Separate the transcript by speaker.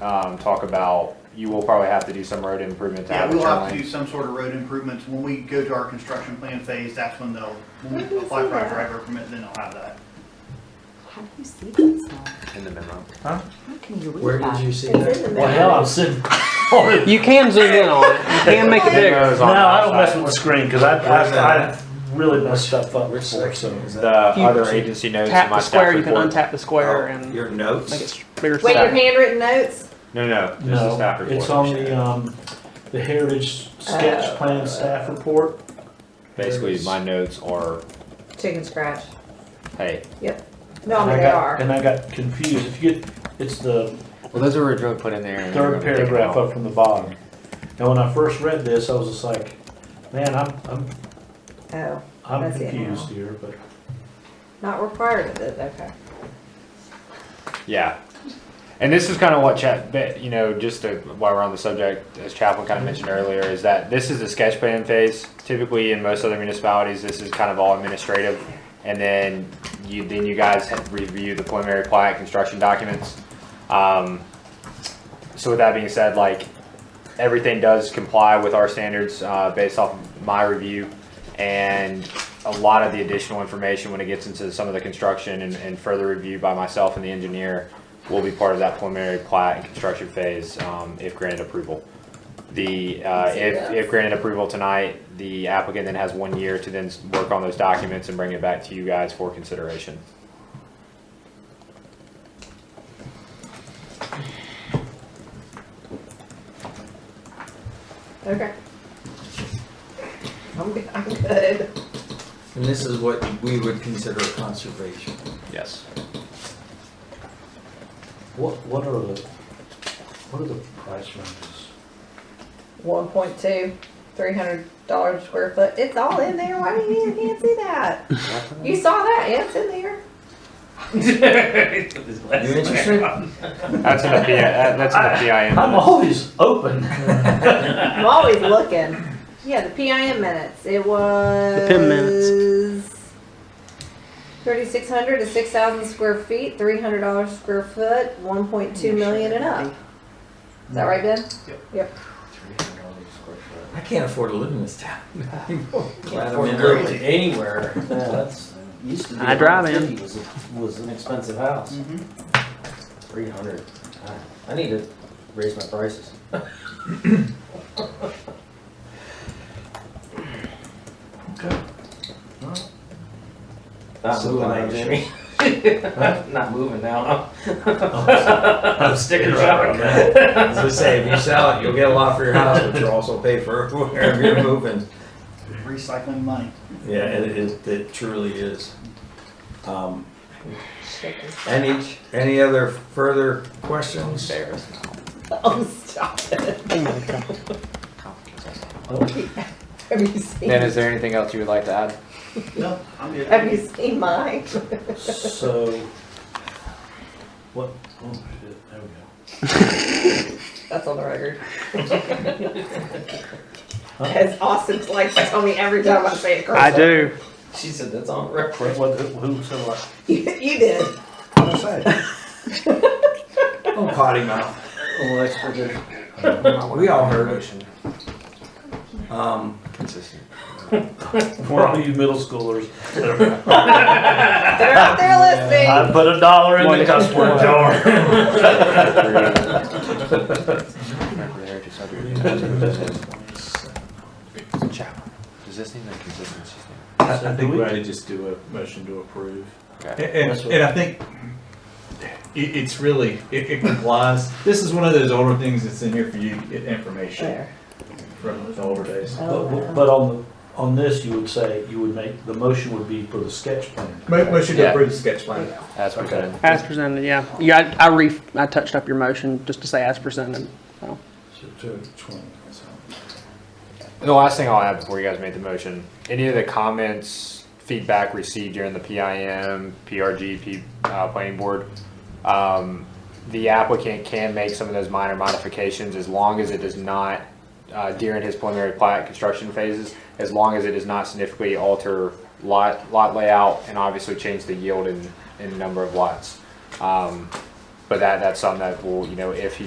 Speaker 1: um, talk about, you will probably have to do some road improvement to
Speaker 2: Yeah,
Speaker 1: have a
Speaker 2: we'll
Speaker 1: turn
Speaker 2: have to do
Speaker 1: lane.
Speaker 2: some sort of road improvements. When we go to our construction plan phase, that's when they'll, when
Speaker 3: Where do
Speaker 2: we
Speaker 3: you
Speaker 2: apply
Speaker 3: see
Speaker 2: for our
Speaker 3: that?
Speaker 2: driver permit, then they'll have that.
Speaker 3: How do you see that stuff?
Speaker 1: In the memo.
Speaker 3: How can you read
Speaker 4: Where
Speaker 3: that?
Speaker 4: did you see
Speaker 3: It's in
Speaker 4: that?
Speaker 3: the
Speaker 5: Well,
Speaker 3: middle.
Speaker 5: hell, I'm sitting. No,
Speaker 6: You can zoom in on it. You can make it bigger.
Speaker 1: Memo's on the
Speaker 5: I don't mess
Speaker 1: outside.
Speaker 5: with the screen because I,
Speaker 4: Where's that
Speaker 5: I, I really messed stuff up
Speaker 4: Which
Speaker 5: before. So.
Speaker 4: section is
Speaker 1: The
Speaker 4: that?
Speaker 1: other agency notes in
Speaker 6: Tap
Speaker 1: my
Speaker 6: the
Speaker 1: staff
Speaker 6: square. You can
Speaker 1: report.
Speaker 6: untap the square
Speaker 4: Oh,
Speaker 6: and
Speaker 4: Your notes?
Speaker 6: make it clear.
Speaker 3: Wait, your
Speaker 1: Saturday.
Speaker 3: handwritten notes?
Speaker 1: No, no, this is staff
Speaker 5: No,
Speaker 1: report.
Speaker 5: it's on the um, the Heritage Sketch Plan Staff Report.
Speaker 1: Basically, my notes are,
Speaker 3: Chicken scratch.
Speaker 1: hey,
Speaker 3: No,
Speaker 5: and
Speaker 3: no,
Speaker 5: I
Speaker 3: they
Speaker 5: got,
Speaker 3: are.
Speaker 5: And I got confused. If you get, it's the
Speaker 1: well, those are originally put in there. and we're
Speaker 5: third
Speaker 1: gonna take them
Speaker 5: paragraph
Speaker 1: out.
Speaker 5: up from the bottom. And when I first read this, I was just like, man, I'm I'm
Speaker 3: Oh,
Speaker 5: I'm
Speaker 3: That's it
Speaker 5: confused
Speaker 3: now.
Speaker 5: here, but
Speaker 3: not required of it, okay.
Speaker 1: Yeah. And this is kind of what Chap, but, you know, just to, while we're on the subject, as Chaplin kind of mentioned earlier, is that this is the sketch plan phase. Typically, in most other municipalities, this is kind of all administrative, and then you then you guys have review the preliminary plat construction documents. Um, so with that being said, like everything does comply with our standards uh, based off my review, and a lot of the additional information when it gets into some of the construction and, and further review by myself and the engineer will be part of that preliminary plat and construction phase um, if granted approval. The uh, if, if granted approval tonight, the applicant then has one year to then s- work on those documents and bring it back to you guys for consideration.
Speaker 3: Okay. I'm good, I'm good.
Speaker 4: And this is what we would consider conservation.
Speaker 1: Yes.
Speaker 5: what what are the what are the price ranges?
Speaker 3: One point two, three hundred dollars a square foot. It's all in there. Why do you you can't see that? You saw that? Yeah, it's in there.
Speaker 4: You interested?
Speaker 1: That's in the P- that- that's in the PIN.
Speaker 5: I'm always open.
Speaker 3: I'm always looking. Yeah, the PIM minutes. It was.
Speaker 6: PIM minutes.
Speaker 3: Thirty-six hundred to six thousand square feet, three hundred dollars square foot, one point two million and up. Is that right, Ben?
Speaker 4: I can't afford to live in this town. Glad I'm
Speaker 7: Afford
Speaker 4: in
Speaker 7: to go
Speaker 4: early.
Speaker 7: to anywhere. Yeah, that's used to be.
Speaker 6: I drive in.
Speaker 7: 150 Was, a- was an expensive house.
Speaker 2: Mm-hmm.
Speaker 7: Three hundred. I need to raise my prices.
Speaker 5: Okay.
Speaker 7: Not
Speaker 4: So
Speaker 7: moving now,
Speaker 4: buyers.
Speaker 7: Jimmy. Not moving now. I'm sticking
Speaker 4: You're right on
Speaker 7: around.
Speaker 4: that. As I say, if you sell it, you'll get a lot for your house, but you'll also pay for wherever you're moving.
Speaker 2: Recycling money.
Speaker 4: Yeah, it is, it truly is. Um,
Speaker 3: Shaking.
Speaker 4: Any, any other further questions?
Speaker 1: Embarrassed.
Speaker 3: Oh, stop it.
Speaker 6: Oh
Speaker 3: Have you seen?
Speaker 1: Then, is there anything else you would like to add?
Speaker 2: No, I'm good.
Speaker 3: Have you seen mine?
Speaker 5: So, what? Oh shit! There we go.
Speaker 3: That's on the record. As Austin likes to tell me every time I say it
Speaker 6: I
Speaker 3: correctly.
Speaker 6: do.
Speaker 7: She said that's on record.
Speaker 5: What, what, who uh, said what?
Speaker 3: You, you did.
Speaker 4: What's that? Oh, potty mouth.
Speaker 7: Oh, that's for good.
Speaker 4: We all heard it. Um,
Speaker 1: Consistent.
Speaker 5: For all you middle schoolers, that are-
Speaker 3: They're out there
Speaker 5: I
Speaker 3: listening.
Speaker 5: put a dollar in the cuss word jar.
Speaker 1: Does this need a consistency thing?
Speaker 8: I I think we ought to just do a motion to approve.
Speaker 1: Okay.
Speaker 8: And,
Speaker 5: That's what-
Speaker 8: and I think it, it's really, it, it complies. This is one of those older things that's in here for you to get information
Speaker 3: There.
Speaker 8: from the older days.
Speaker 3: Oh,
Speaker 5: But,
Speaker 3: wow.
Speaker 5: but on, the on this, you would say, you would make, the motion would be for the sketch plan.
Speaker 8: Mo- Motion
Speaker 1: Yeah.
Speaker 8: to approve the sketch plan.
Speaker 1: As presented.
Speaker 6: As presented, yeah. Yeah, I, I re, I touched up your motion just to say as presented. So,
Speaker 1: The last thing I'll add before you guys make the motion, any of the comments, feedback received during the PIM, PRG, P, uh, planning board, um, the applicant can make some of those minor modifications as long as it does not, uh, during his preliminary plat construction phases, as long as it does not significantly alter lot, lot layout and obviously change the yield in, in number of lots. Um, but that, that's something that will, you know, if he